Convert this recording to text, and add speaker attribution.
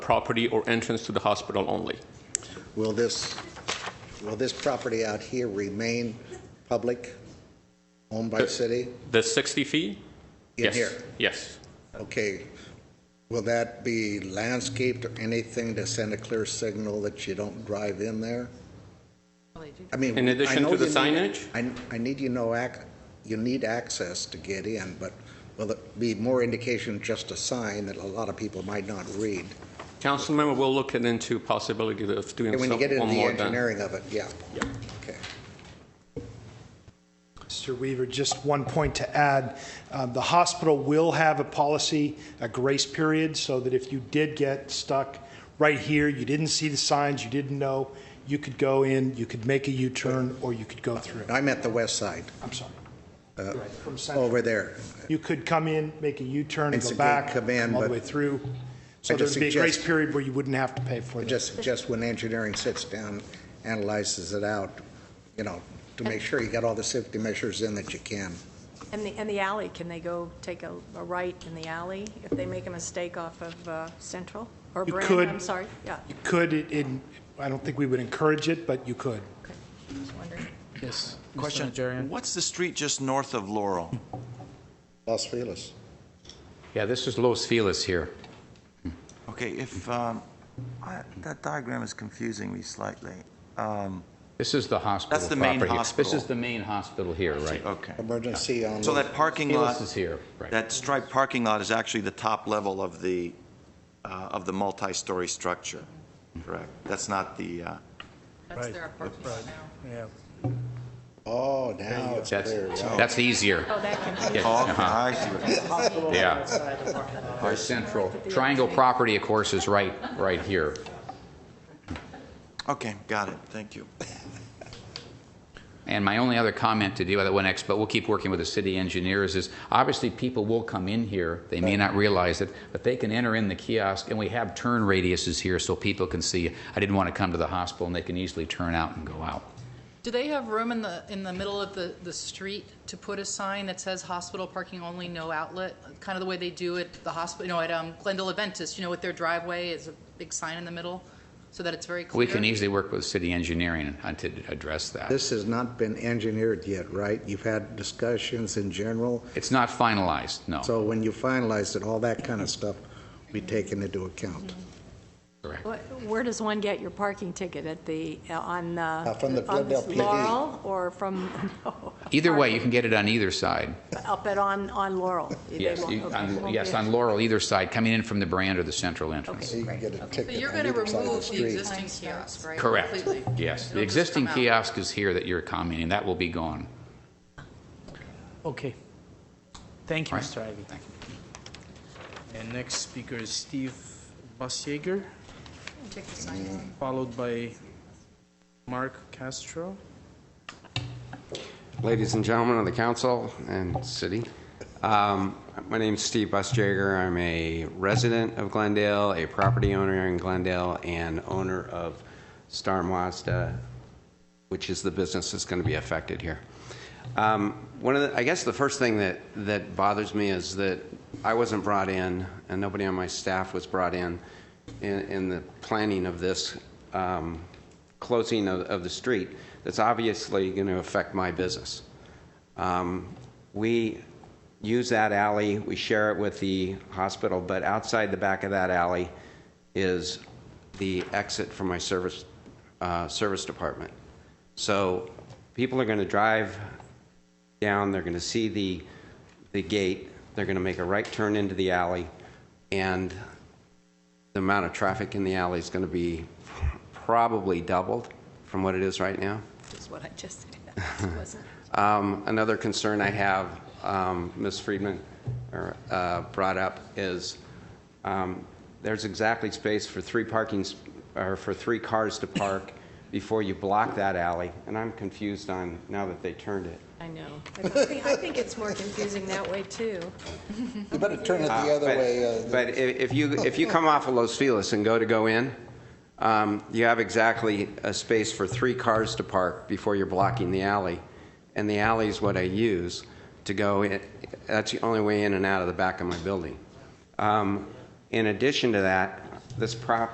Speaker 1: property or entrance to the hospital only.
Speaker 2: Will this, will this property out here remain public, owned by city?
Speaker 1: The 60 feet? Uh,
Speaker 2: In
Speaker 1: Yes.
Speaker 2: here?
Speaker 1: Yes.
Speaker 2: Okay. Will that be landscaped or anything to send a clear signal that you don't drive in there? I mean,
Speaker 1: In addition
Speaker 2: I know
Speaker 1: to the
Speaker 2: you need-
Speaker 1: signage?
Speaker 2: I, I need you know, ac- you need access to get in, but will it be more indication just a sign that a lot of people might not read?
Speaker 1: Councilmember, we'll look into possibility of doing
Speaker 2: And
Speaker 1: some-
Speaker 2: When you get into
Speaker 1: one
Speaker 2: the
Speaker 1: more than.
Speaker 2: engineering of it, yeah.
Speaker 1: Yeah.
Speaker 2: Okay.
Speaker 3: Mr. Weaver, just one point to add. Uh, The hospital will have a policy, a grace period, so that if you did get stuck right here, you didn't see the signs, you didn't know, you could go in, you could make a U-turn, or you could go through.
Speaker 2: I'm at the west side,
Speaker 3: I'm sorry.
Speaker 2: Uh,
Speaker 3: Right, From Central.
Speaker 2: over there.
Speaker 3: You could come in, make a U-turn,
Speaker 2: oh. It's a
Speaker 3: go
Speaker 2: good
Speaker 3: back, come
Speaker 2: command,
Speaker 3: all the
Speaker 2: but
Speaker 3: way through. So
Speaker 2: I
Speaker 3: there'd
Speaker 2: just
Speaker 3: be a grace
Speaker 2: suggest-
Speaker 3: period where you wouldn't have to pay for it.
Speaker 2: Just, just when engineering sits down, analyzes it out, you know, to make sure you got all the safety measures in that you can.
Speaker 4: And the, and the alley, can they go take a, a right in the alley if they make a mistake off of uh, Central? Or
Speaker 3: You
Speaker 4: Brand,
Speaker 3: could.
Speaker 4: I'm sorry, yeah.
Speaker 3: You could, it- it- I don't think we would encourage it, but you could.
Speaker 4: Okay. Just wondering.
Speaker 5: Yes.
Speaker 6: Question.
Speaker 5: What's the street just north of Laurel?
Speaker 2: Los Feliz.
Speaker 6: Yeah, this is Los Feliz here.
Speaker 5: Okay, if, um, I- that diagram is confusing me slightly. Um,
Speaker 6: This is the hospital
Speaker 5: That's the main
Speaker 6: proper here.
Speaker 5: hospital.
Speaker 6: This is the main hospital here, right?
Speaker 5: Okay.
Speaker 2: Emergency on,
Speaker 5: So that parking lot,
Speaker 6: Feliz is here, right?
Speaker 5: that striped parking lot is actually the top level of the, uh, of the multi-story structure, correct? That's not the, uh,
Speaker 4: That's their apartment now.
Speaker 2: oh, now it's
Speaker 6: That's,
Speaker 2: clear. wow.
Speaker 6: that's easier.
Speaker 4: Oh, that can be,
Speaker 6: Yes,
Speaker 5: oh, okay,
Speaker 6: uh-huh,
Speaker 5: I see what you're saying.
Speaker 6: Yeah. Our central, triangle property, of course, is right, right here.
Speaker 5: Okay, got it, thank you.
Speaker 6: And my only other comment to deal with that one X, but we'll keep working with the city engineers, is obviously people will come in here, they may not realize it, but they can enter in the kiosk, and we have turn radiuses here so people can see, I didn't want to come to the hospital, and they can easily turn out and go out.
Speaker 7: Do they have room in the, in the middle of the, the street to put a sign that says hospital parking only, no outlet? Kind of the way they do at the hospital, you know, at um, Glendale Adventist, you know, with their driveway is a big sign in the middle, so that it's very clear?
Speaker 6: We can easily work with city engineering on- to address that.
Speaker 2: This has not been engineered yet, right? You've had discussions in general,
Speaker 6: It's not finalized, no.
Speaker 2: so when you finalize it, all that kind of stuff will be taken into account.
Speaker 6: Correct.
Speaker 4: Wh- where does one get your parking ticket? At the, on, uh,
Speaker 2: from the
Speaker 4: on
Speaker 2: Glendale PD.
Speaker 4: Laurel or from, no,
Speaker 6: Either way, you can get it on either side.
Speaker 4: up at, on, on Laurel? They
Speaker 6: Yes,
Speaker 4: won't-
Speaker 6: you-
Speaker 4: okay,
Speaker 6: on-
Speaker 4: won't
Speaker 6: yes,
Speaker 4: be-
Speaker 6: on Laurel, either side, coming in from the brand or the central entrance.
Speaker 2: So you can get a
Speaker 7: So
Speaker 2: ticket
Speaker 7: you're
Speaker 2: on
Speaker 7: going to
Speaker 2: either side of the
Speaker 7: remove the
Speaker 2: street.
Speaker 7: existing kiosk, right?
Speaker 6: Correct,
Speaker 7: Completely?
Speaker 6: yes. The
Speaker 7: It'll just
Speaker 6: existing
Speaker 7: come out.
Speaker 6: kiosk is here that you're commenting, that will be gone.
Speaker 8: Okay. Thank you,
Speaker 6: Right.
Speaker 8: Mr. Ivy.
Speaker 6: Thank you.
Speaker 8: And next speaker is Steve Busjager,
Speaker 7: Take the sign off.
Speaker 8: followed by Mark Castro.
Speaker 9: Ladies and gentlemen of the council and city, um, my name's Steve Busjager. I'm a resident of Glendale, a property owner in Glendale, and owner of Star Mazda, which is the business that's going to be affected here. Um, One of the, I guess the first thing that, that bothers me is that I wasn't brought in, and nobody on my staff was brought in, in, in the planning of this um, closing of, of the street that's obviously going to affect my business. Um, We use that alley, we share it with the hospital, but outside the back of that alley is the exit for my service, uh, service department. So people are going to drive down, they're going to see the, the gate, they're going to make a right turn into the alley, and the amount of traffic in the alley is going to be probably doubled from what it is right now.
Speaker 4: Is what I just said, wasn't it?
Speaker 9: Um, Another concern I have, um, Ms. Friedman er, uh, brought up, is um, there's exactly space for three parking, sp- or for three cars to park before you block that alley, and I'm confused on, now that they turned it.
Speaker 4: I know. I think- I think it's more confusing that way, too.
Speaker 2: You better turn it the other
Speaker 9: But-
Speaker 2: way. uh,
Speaker 9: But i- if you, if you come off of Los Feliz and go to go in, um, you have exactly a space for three cars to park before you're blocking the alley. And the alley's what I use to go, in that's the only way in and out of the back of my building. Um, In addition to that, this prop,